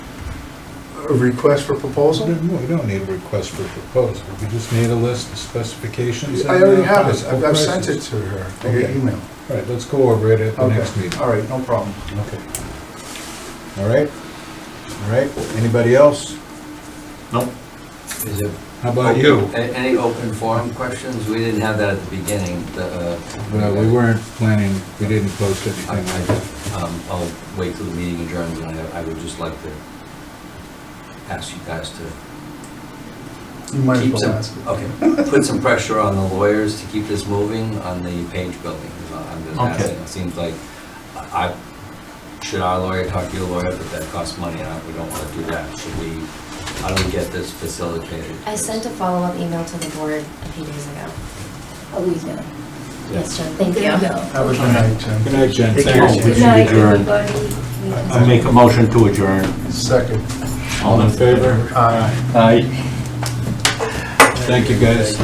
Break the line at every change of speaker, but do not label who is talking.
a request for proposal?
No, we don't need a request for proposal, we just need a list of specifications.
I
and,
already
uh,
have it,
possible
I've I've sent it
prices.
to her, I got
Okay.
email.
All right, let's go over it at the
Okay.
next meeting.
All right, no problem.
Okay. All right, all right, anybody else?
Nope.
Is there
How about you?
a- any open forum questions? We didn't have that at the beginning, the, uh...
Well, we weren't planning, we didn't post
I,
anything like that.
I, um, I'll wait till the meeting adjourns, and I, I would just like to ask you guys to
You might as
keep
well ask.
some, okay, put some pressure on the lawyers to keep this moving on the Page building, is all I'm just
Okay.
asking. It seems like, I, I- should our lawyer talk to your lawyer, but that costs money, and I- we don't wanna do that. Should we, how do we get this facilitated?
I sent a follow-up email to the board a few days ago.
a week now.
Yes, Jen, thank you.
There we go.
Have a good night, Jim.
Good night, Jen.
Take
Thank
care.
you.
Good
should
night,
adjourn.
everybody. We can-
I make a motion to adjourn.
Second.
All in favor?
Aye.
Aye.
Thank you, guys.